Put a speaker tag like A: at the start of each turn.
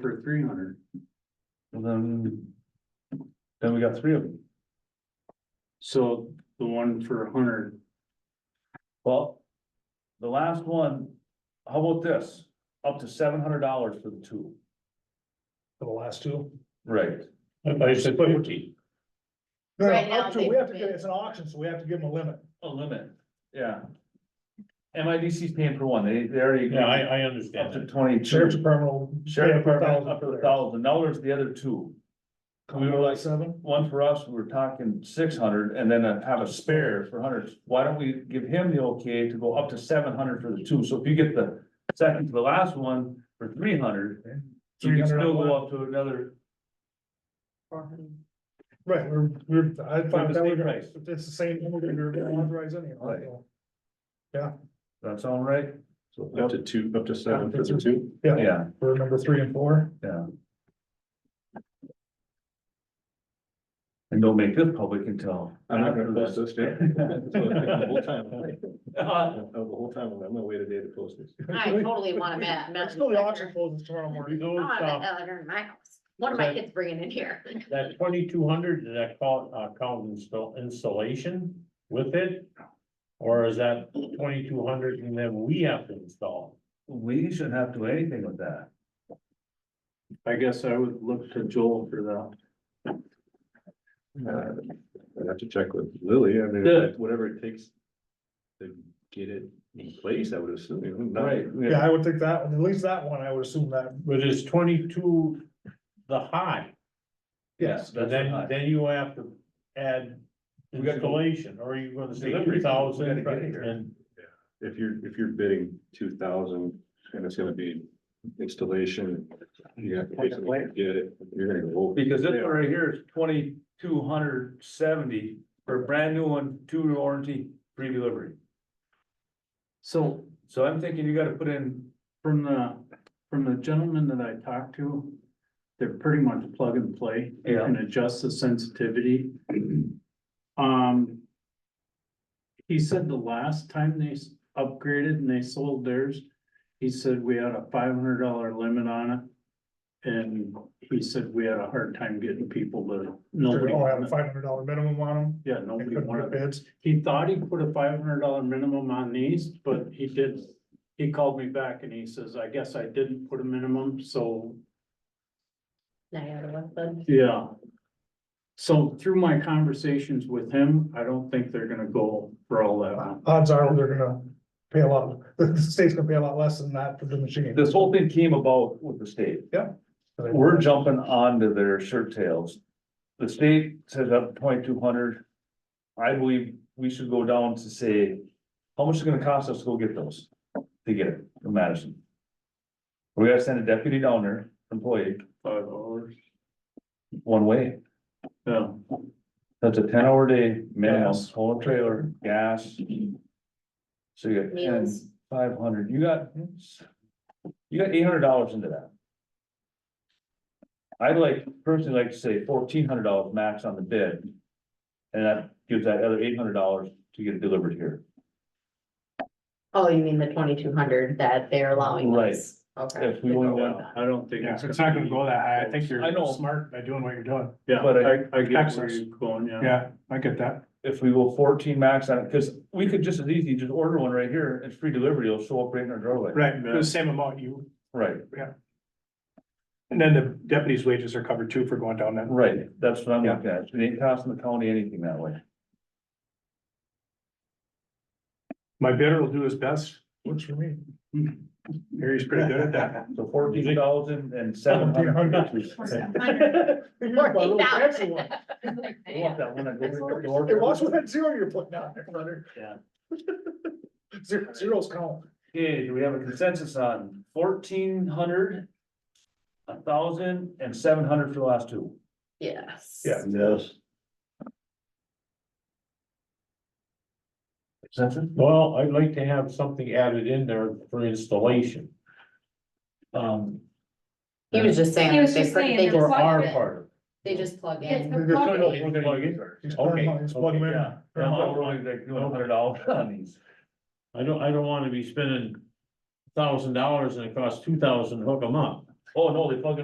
A: for three hundred.
B: And then. Then we got three of them.
A: So the one for a hundred,
B: Well. The last one, how about this? Up to seven hundred dollars for the two.
C: For the last two?
B: Right.
C: I said fifty. No,
D: Right now,
C: up to, we have to,
D: they've
C: give-
D: been-
C: it's an auction, so we have to give them a limit.
B: A limit, yeah. MIDC's paying for one, they, they already.
E: Yeah, I, I
B: Up
E: understand
B: to
E: that.
C: Sheriff's
B: twenty-two.
C: Department will.
B: Sheriff Department
C: $1,000
B: up to
C: for
B: a
C: theirs.
B: thousand, now there's the other two. We were like,
C: Seven,
B: one for us, we were talking six hundred and then uh, have a spare for hundreds. Why don't we give him the okay to go up to seven hundred for the two? So if you get the second to the last one for three hundred. You can still go up to another,
C: right, we're, we're, I
B: For the
C: thought that
B: same
C: was,
B: price.
C: if it's the same, we're gonna we're gonna authorize anyhow.
B: Right.
C: so.
B: that sound right?
E: Up to two, up to seven for the two.
C: Yeah,
B: Yeah,
C: for number three and four,
B: yeah. And don't make this public until.
E: I'm not gonna post this, yeah. The whole time,
B: Uh,
E: the whole time, I'm gonna wait a day to post this.
D: I totally want a ma-
C: let's
D: mountain
C: go to the
D: biker.
C: auction closes tomorrow morning.
D: I want a mountain biker in my house. One of my kids bringing in here.
E: That twenty-two hundred, did that call, uh, count install, installation with it? Or is that twenty-two hundred and then we have to install?
B: We shouldn't have to do anything with that.
A: I guess I would look to Joel for that.
E: I'd have to check with Lily, I mean,
B: Good.
E: whatever it takes to get it in place, I would assume. not-
B: Right.
C: Yeah, I would think that, one, at least that one, I would assume that,
F: But it's twenty-two the high,
B: Yes,
F: and
B: that's
F: then,
B: right.
F: then you have to add
B: We gotta go-
F: installation, or you're gonna say
B: Delivery,
F: three
B: we
F: thousand,
B: gotta get here.
F: and
E: If you're, if you're bidding two thousand and it's gonna be installation, you have to basically get it, you're gonna go.
B: Because this one right here is twenty-two hundred seventy for a brand new one, two-year warranty, free delivery.
A: So
B: So I'm thinking you gotta put in,
A: from the, from the gentleman that I talked to, they're pretty much plug and play
B: yeah,
A: and adjust the sensitivity. Um. He said the last time they s- upgraded and they sold theirs, he said we had a five hundred dollar limit on it. And he said we had a hard time getting people to, nobody,
C: oh, have a
A: wanted-
C: five hundred dollar minimum on them.
A: yeah,
C: They
A: nobody
C: couldn't
A: wanted
C: get bids.
A: He thought he put a five hundred dollar minimum on these, but he did, he called me back and he says, I guess I didn't put a minimum, so,
D: Niagara West Bud.
A: yeah. So through my conversations with him, I don't think they're gonna go for all that. amount.
C: Odds are they're gonna pay a lot, the state's gonna pay a lot less than that for the machine.
B: this whole thing came about with the state. We're jumping onto their shirt tails. The state says up twenty-two hundred. I believe we should go down to say, how much is it gonna cost us to go get those? To get it from Madison. We gotta send a deputy down there, employee,
A: Five dollars,
B: one way.
A: yeah.
B: That's a ten hour day minimum,
A: Gas.
B: whole trailer, gas. So you got ten,
D: Meals.
B: five hundred, you got, you got eight hundred dollars into that. I'd like, personally like to say fourteen hundred dollars max on the bid. And that gives that other eight hundred dollars to get it delivered here.
D: Oh, you mean the twenty-two hundred that they're allowing
B: Right.
D: us? Okay.
B: If we only want,
A: Yeah, I don't think.
G: Yeah, it's not gonna go that high. I think
B: I
G: you're
B: know.
G: smart by doing what you're doing.
A: Yeah,
B: but I-
A: I, I get where
G: Texas.
A: you're going, yeah.
G: Yeah, I get that.
B: if we go fourteen max on it, cause we could just as easy just order one right here, it's free delivery, it'll show up right in our doorway.
G: Right, for the same amount you,
B: Right,
G: and then the deputy's wages are covered too for going down that.
B: right, that's what I'm looking at, it ain't costing the county anything that way.
G: My bidder will do his best.
C: Works for me.
G: Harry's pretty good at that.
B: So fourteen thousand and seven hundred.
D: Fourteen thousand.
C: Excellent.
B: Want that one that goes in the
C: Hey, watch
B: door?
C: what that zero you're putting down there, brother.
B: Yeah.
C: Zero, zeros count.
B: Okay, do we have a consensus on fourteen hundred? A thousand and seven hundred for the last two?
D: Yes.
B: Yes. Consensus?
F: well, I'd like to have something added in there for installation. Um,
D: He was just saying.
H: He was
D: they
H: just
D: put-
H: saying
D: they
H: that's
D: just-
F: for
H: Plug
F: our
H: it.
F: part,
D: They just plug
H: It's
D: in.
H: the
C: They're
H: plug
C: gonna-
H: in.
C: we're
B: Plug in.
C: He's
F: Okay,
C: plugging, he's plugging
F: okay,
C: in.
B: Yeah. Now, we're only like doing a hundred dollars on these.
F: I don't, I don't wanna be spending thousand dollars and it costs two thousand to hook them up.
B: Oh, no, they plug in.